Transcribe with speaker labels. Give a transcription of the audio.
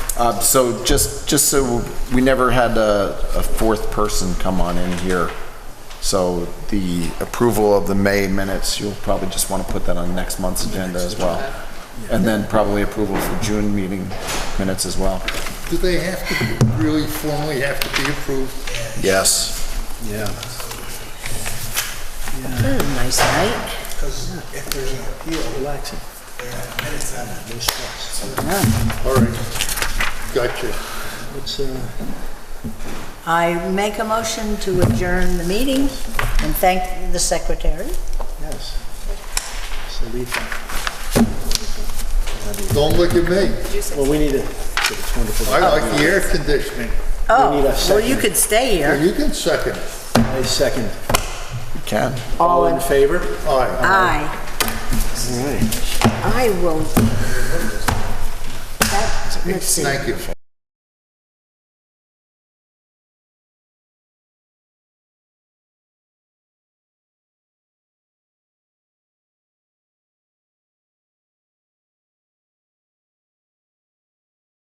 Speaker 1: Uh, So just, just so, we never had a, a fourth person come on in here. So the approval of the May minutes, you'll probably just want to put that on next month's agenda as well. And then probably approval for June meeting minutes as well.
Speaker 2: Do they have to really formally have to be approved?
Speaker 1: Yes.
Speaker 3: That was a nice night.
Speaker 4: Because if there's an appeal. Relaxing. Then it's on no stress.
Speaker 2: All right, gotcha.
Speaker 4: What's, uh,
Speaker 3: I make a motion to adjourn the meeting and thank the secretary.
Speaker 4: yes. So leave that.
Speaker 2: Don't look at me.
Speaker 4: Well, we need it. It's wonderful.
Speaker 2: I like the air conditioning.
Speaker 3: Oh,
Speaker 4: need a
Speaker 3: well, you
Speaker 4: second.
Speaker 3: could stay here.
Speaker 2: You can second. it.
Speaker 4: I second.
Speaker 1: You can.
Speaker 4: All in favor?
Speaker 2: Aye.
Speaker 3: Aye,
Speaker 4: All right.
Speaker 3: I will. That- Let's see.
Speaker 2: Thank you.